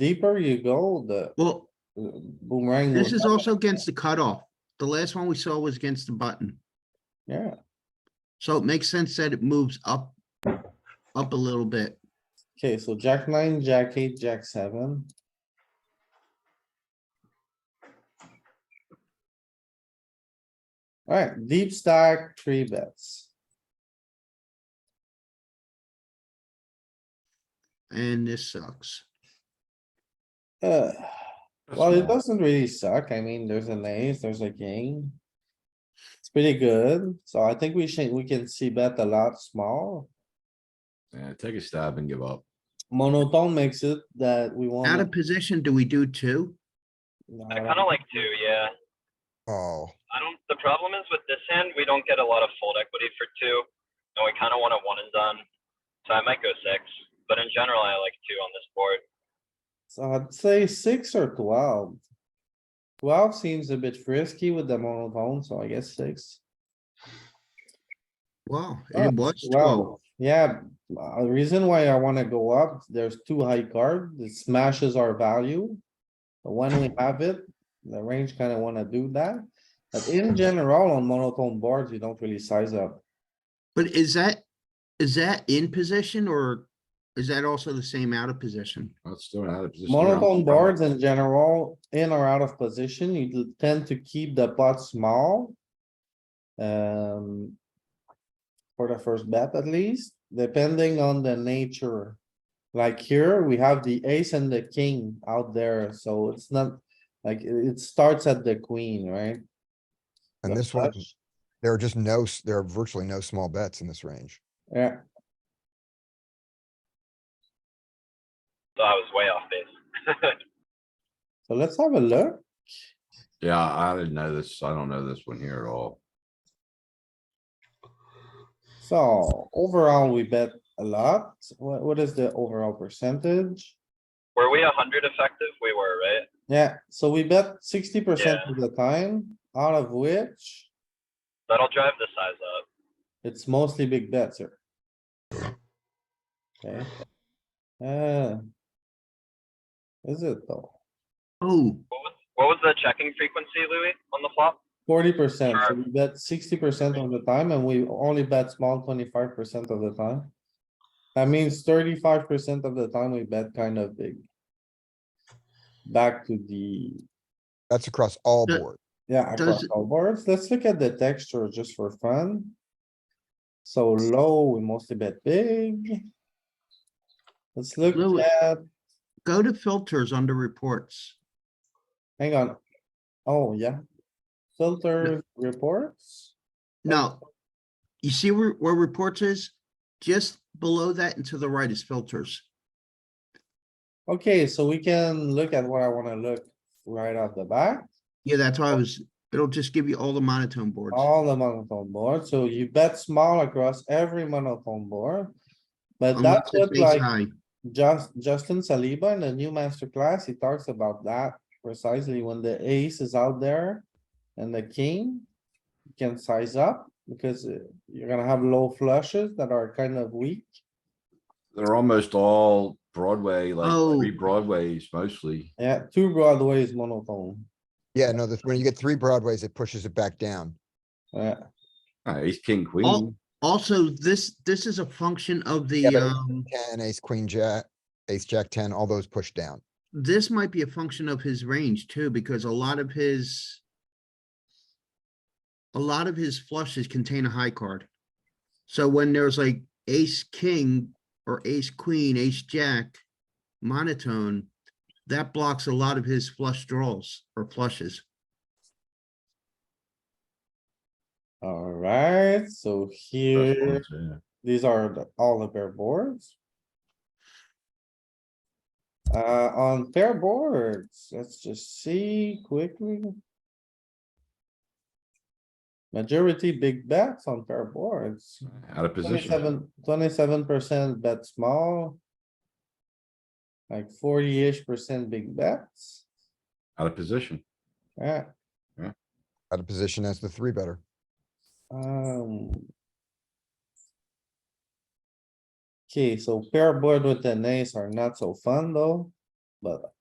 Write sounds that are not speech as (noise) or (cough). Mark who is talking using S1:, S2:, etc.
S1: deeper you go, the
S2: Well,
S1: uh, boomerang.
S2: this
S1: will-
S2: is also against the cutoff. The last one we saw was against the button.
S1: Yeah,
S2: So it makes sense that it moves up, up a little bit.
S1: okay, so jack nine, jack eight, jack seven. Alright, deep stack, three bets.
S2: And this sucks.
S1: Uh, well, it
S3: small.
S1: doesn't really suck. I mean, there's an ace, there's a king. It's pretty good, so I think we should, we can see bet a lot small.
S3: Yeah, take a stab and give up.
S1: Monotone makes it that we want.
S2: Out of position, do we do two?
S4: I kind of like two, yeah.
S5: Oh,
S4: I don't, the problem is with this hand, we don't get a lot of fold equity for two, and we kind of want a one and done. So I might go six, but in general, I like two on this board.
S1: So I'd say six or twelve. Twelve seems a bit frisky with the monotone, so I guess six.
S2: Wow,
S1: Oh,
S2: it was twelve.
S1: Well, yeah, uh, the reason why I wanna go up, there's two high card, it smashes our value. But when we have it, the range kinda wanna do that, but in general, on monotone boards, you don't really size up.
S2: But is that, is that in position or is that also the same out of position?
S3: That's doing out of position. now.
S1: Monotone boards in general, in or out of position, you do tend to keep the pot small. Um. For the first bet at least, depending on the nature. Like here, we have the ace and the king out there, so it's not, like, it, it starts at the queen, right?
S5: and
S1: The
S5: this one,
S1: flush.
S5: there are just no, s- there are virtually no small bets in this range.
S1: Yeah,
S4: So I was way off base. (laughs)
S1: so let's have a look.
S3: Yeah, I didn't know this. I don't know this one here at all.
S1: So overall, we bet a lot. What, what is the overall percentage?
S4: Were we a hundred effective? We were, right?
S1: Yeah, so we bet sixty percent of the time, out of which
S4: That'll drive the size up.
S1: it's mostly big bets here. Okay. Uh. Is it though?
S2: Oh,
S4: What was, what was the checking frequency, Louis, on the flop?
S1: Forty percent, so
S4: Sure.
S1: we bet sixty percent of the time and we only bet small twenty-five percent of the time. That means thirty-five percent of the time we bet kind of big. Back to the,
S5: That's across all
S2: The-
S5: board.
S1: yeah, across
S2: Does-
S1: all boards, let's look at the texture just for fun. So low, we mostly bet big. Let's look
S2: Louis.
S1: at,
S2: go to filters under reports.
S1: hang on. Oh, yeah. Filter reports,
S2: No. You see where, where reports is? Just below that and to the right is filters.
S1: okay, so we can look at what I wanna look right off the bat.
S2: Yeah, that's why I was, it'll just give you all the monotone boards.
S1: All the monotone board, so you bet small across every monotone board. But that's
S2: unless it's
S1: what
S2: ace
S1: like
S2: high.
S1: Just Justin Saliba in the new master class, he talks about that precisely when the ace is out there and the king you can size up because uh, you're gonna have low flushes that are kind of weak.
S3: They're almost all Broadway, like
S2: Oh.
S3: three Broadways mostly.
S1: Yeah, two broadways monotone.
S5: Yeah, no, this, when you get three broadways, it pushes it back down.
S1: Yeah,
S3: Uh, Ace, king,
S2: All-
S3: queen.
S2: Also, this, this is a function of the,
S5: Yeah, but-
S2: um,
S5: Ten, ace, queen, jack, ace, jack, ten, all those push down.
S2: this might be a function of his range too, because a lot of his a lot of his flushes contain a high card. So when there's like ace, king, or ace, queen, ace, jack, monotone, that blocks a lot of his flush draws or flushes.
S1: alright, so
S3: That's
S1: here,
S3: one, yeah.
S1: these are the- all the pair boards. Uh, on pair boards, let's just see quickly. Majority big bets on pair boards.
S3: Out of position.
S1: 27 percent bet small. Like forty-ish percent big bets,
S3: Out of position.
S1: yeah,
S5: Out of position as the three better.
S1: um. Okay, so pair board with the ace are not so fun though. But